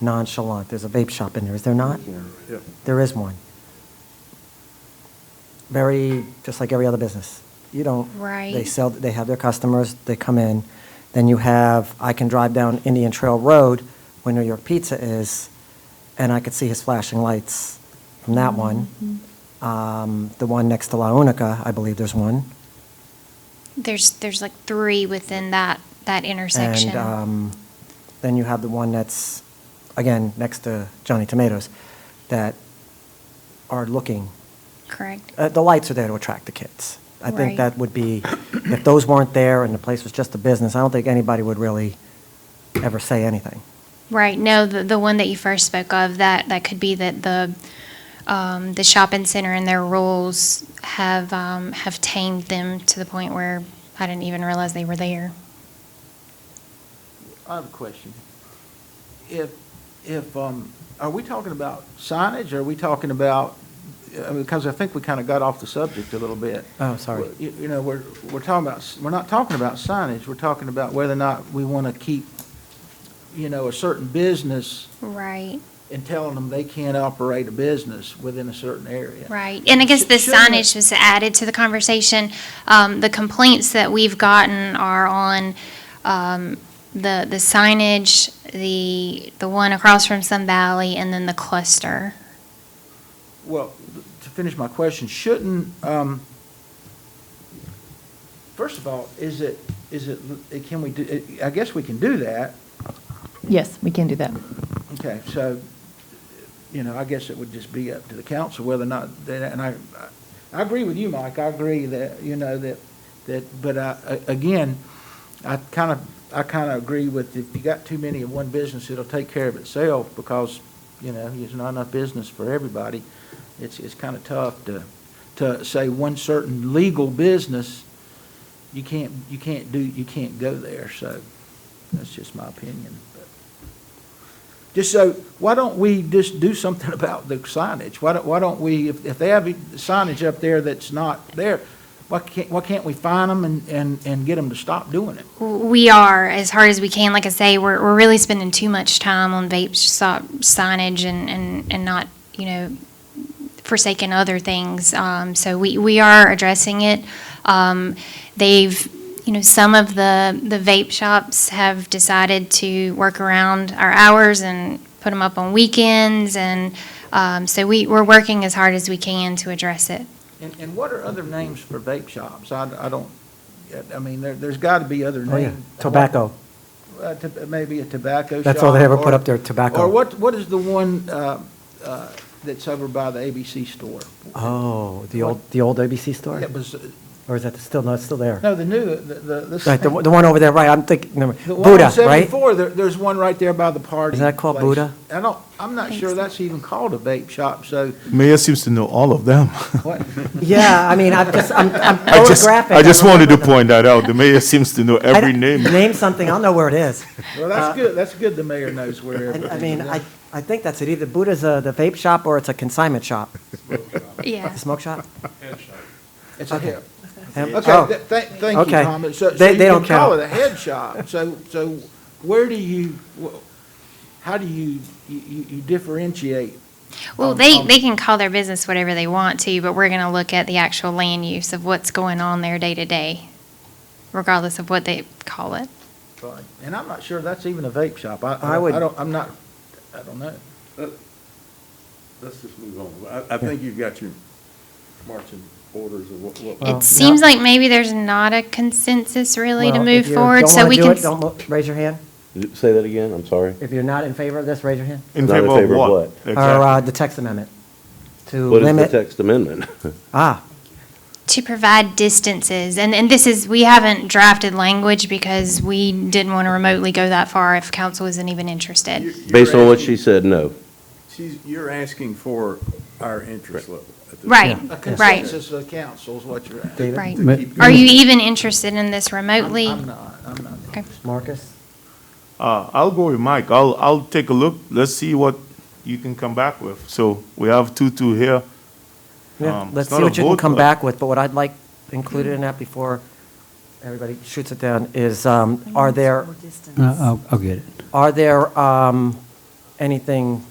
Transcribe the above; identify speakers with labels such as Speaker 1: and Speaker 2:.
Speaker 1: nonchalant. There's a vape shop in there, is there not?
Speaker 2: Yeah.
Speaker 1: There is one. Very, just like every other business. You don't. They
Speaker 3: Right.
Speaker 1: sell, they have their customers, they come in. Then you have, I can drive down Indian Trail Road where New York Pizza is, and I could see his flashing lights from that one. Um, The one next to La Unica, I believe there's one.
Speaker 3: There's, there's like three within that, that intersection.
Speaker 1: And um, then you have the one that's, again, next to Johnny Tomatoes, that are looking
Speaker 3: Correct.
Speaker 1: uh, the lights are there to attract the kids. I think
Speaker 3: Right.
Speaker 1: that would be, if those weren't there and the place was just a business, I don't think anybody would really ever say anything.
Speaker 3: Right, no, the, the one that you first spoke of, that, that could be that the, um, the shopping center and their rules have, um, have tamed them to the point where I didn't even realize they were there.
Speaker 4: I have a question. If, if, um, are we talking about signage, or are we talking about, I mean, because I think we kind of got off the subject a little bit.
Speaker 1: Oh, sorry.
Speaker 4: You, you know, we're, we're talking about, s- we're not talking about signage, we're talking about whether or not we want to keep, you know, a certain business
Speaker 3: Right,
Speaker 4: and telling them they can't operate a business within a certain area.
Speaker 3: right. And I guess the
Speaker 4: Sh- shouldn't it-
Speaker 3: signage was added to the conversation. Um, the complaints that we've gotten are on, um, the, the signage, the, the one across from Sun Valley, and then the cluster.
Speaker 4: Well, to finish my question, shouldn't, um, first of all, is it, is it, can we do, I guess we can do that.
Speaker 5: Yes, we can do that.
Speaker 4: Okay, so, you know, I guess it would just be up to the council whether or not, they- and I, I agree with you, Mike, I agree that, you know, that, that, but I, a- again, I kind of, I kind of agree with if you got too many of one business, it'll take care of itself because, you know, there's not enough business for everybody. It's, it's kind of tough to, to say one certain legal business, you can't, you can't do, you can't go there, so that's just my opinion. but- just so, why don't we just do something about the signage? Why don't, why don't we, if, if they have signage up there that's not there, why can't, why can't we fine them and, and, and get them to stop doing it?
Speaker 3: We are, as hard as we can. Like I say, we're, we're really spending too much time on vape shop signage and, and, and not, you know, forsaking other things. Um, so we, we are addressing it. Um, they've, you know, some of the, the vape shops have decided to work around our hours and put them up on weekends. And um, so we, we're working as hard as we can to address it.
Speaker 4: And, and what are other names for vape shops? I, I don't, I mean, there, there's gotta be other
Speaker 1: Oh, yeah,
Speaker 4: names.
Speaker 1: tobacco.
Speaker 4: Uh, to- Maybe a tobacco shop.
Speaker 1: That's all they ever put
Speaker 4: or-
Speaker 1: up there, tobacco.
Speaker 4: Or what, what is the one, uh, uh, that's over by the ABC store?
Speaker 1: Oh, the old, the old ABC store?
Speaker 4: That was, uh,
Speaker 1: Or is that still, no, it's still there?
Speaker 4: no, the new, the, the. this
Speaker 1: Right, the
Speaker 4: thing-
Speaker 1: one the one over there, right, I'm thinking, never-
Speaker 4: The one oh
Speaker 1: Buddha,
Speaker 4: on
Speaker 1: right?
Speaker 4: 74, there, there's one right there by the party.
Speaker 1: Is that called
Speaker 4: place.
Speaker 1: Buddha?
Speaker 4: I don't, I'm not sure that's even called a vape shop, so
Speaker 2: Mayor seems to know all of them.
Speaker 4: what?
Speaker 1: Yeah, I mean, I'm just, I'm I'm
Speaker 2: I just,
Speaker 1: photographic.
Speaker 2: I just
Speaker 1: don't
Speaker 2: wanted to
Speaker 1: remember
Speaker 2: point that out. The mayor seems to know
Speaker 1: them. I
Speaker 2: every
Speaker 1: don't-
Speaker 2: name.
Speaker 1: Name something, I'll know where it is.
Speaker 4: Well, that's good, that's good the mayor knows where
Speaker 1: Uh, I
Speaker 4: everything
Speaker 1: I
Speaker 4: is.
Speaker 1: mean, I, I think that's it, either Buddha's a- the vape shop or it's a consignment shop,
Speaker 3: Yeah.
Speaker 1: the smoke shop?
Speaker 4: It's a head.
Speaker 1: Um,
Speaker 4: Okay,
Speaker 1: oh.
Speaker 4: th- th- thank you,
Speaker 1: Okay.
Speaker 4: Tom. So, so
Speaker 1: They-
Speaker 4: you
Speaker 1: they
Speaker 4: can
Speaker 1: don't
Speaker 4: call
Speaker 1: count.
Speaker 4: it a head shop. So, so where do you, wh- how do you, you- you you differentiate?
Speaker 3: Well,
Speaker 4: Um,
Speaker 3: they,
Speaker 4: um,
Speaker 3: they can call their business whatever they want to, but we're going to look at the actual land use of what's going on there day to day, regardless of what they call it.
Speaker 4: And I'm not sure that's even a vape shop. I,
Speaker 1: I
Speaker 4: I
Speaker 1: would-
Speaker 4: I don't, I'm not, I don't know.
Speaker 6: Let's just move on. I, I think you've got your marching orders of what, what.
Speaker 1: Well,
Speaker 3: It seems
Speaker 1: yeah.
Speaker 3: like maybe there's not a consensus really to
Speaker 1: Well,
Speaker 3: move
Speaker 1: if you
Speaker 3: forward,
Speaker 1: don't
Speaker 3: so
Speaker 1: wanna
Speaker 3: we
Speaker 1: do
Speaker 3: can.
Speaker 1: it, Don't mo- raise your hand.
Speaker 7: Say that again, I'm sorry.
Speaker 1: If you're not in favor of this, raise your hand.
Speaker 2: In
Speaker 7: Not in
Speaker 2: favor of
Speaker 7: favor of
Speaker 2: what?
Speaker 7: what?
Speaker 2: Exactly.
Speaker 1: Or uh, the text amendment to
Speaker 7: What is the
Speaker 1: limit.
Speaker 7: text amendment?
Speaker 1: Ah,
Speaker 3: to provide distances, and, and this is, we haven't drafted language because we didn't want to remotely go that far if council isn't even interested.
Speaker 7: Based on what she said, no.
Speaker 6: She's, you're asking for our interest level. at this
Speaker 3: Right,
Speaker 6: point.
Speaker 4: A
Speaker 3: right,
Speaker 4: consensus of council is what you're after.
Speaker 1: David,
Speaker 3: right.
Speaker 6: To keep
Speaker 3: Are
Speaker 6: going.
Speaker 3: you even interested in this
Speaker 4: I'm
Speaker 3: remotely?
Speaker 4: I'm not, I'm not.
Speaker 3: Okay.
Speaker 1: Marcus,
Speaker 2: Uh, I'll go with Mike. I'll, I'll take a look. Let's see what you can come back with. So we have two-two here.
Speaker 1: yeah,
Speaker 2: Um, it's
Speaker 1: let's
Speaker 2: not
Speaker 1: see
Speaker 2: a
Speaker 1: what you can
Speaker 2: vote,
Speaker 1: come
Speaker 2: but-
Speaker 1: back with, but what I'd like included in that before everybody shoots it down is, um, are there,
Speaker 8: Uh, I'll, I'll get it.
Speaker 1: are there um, anything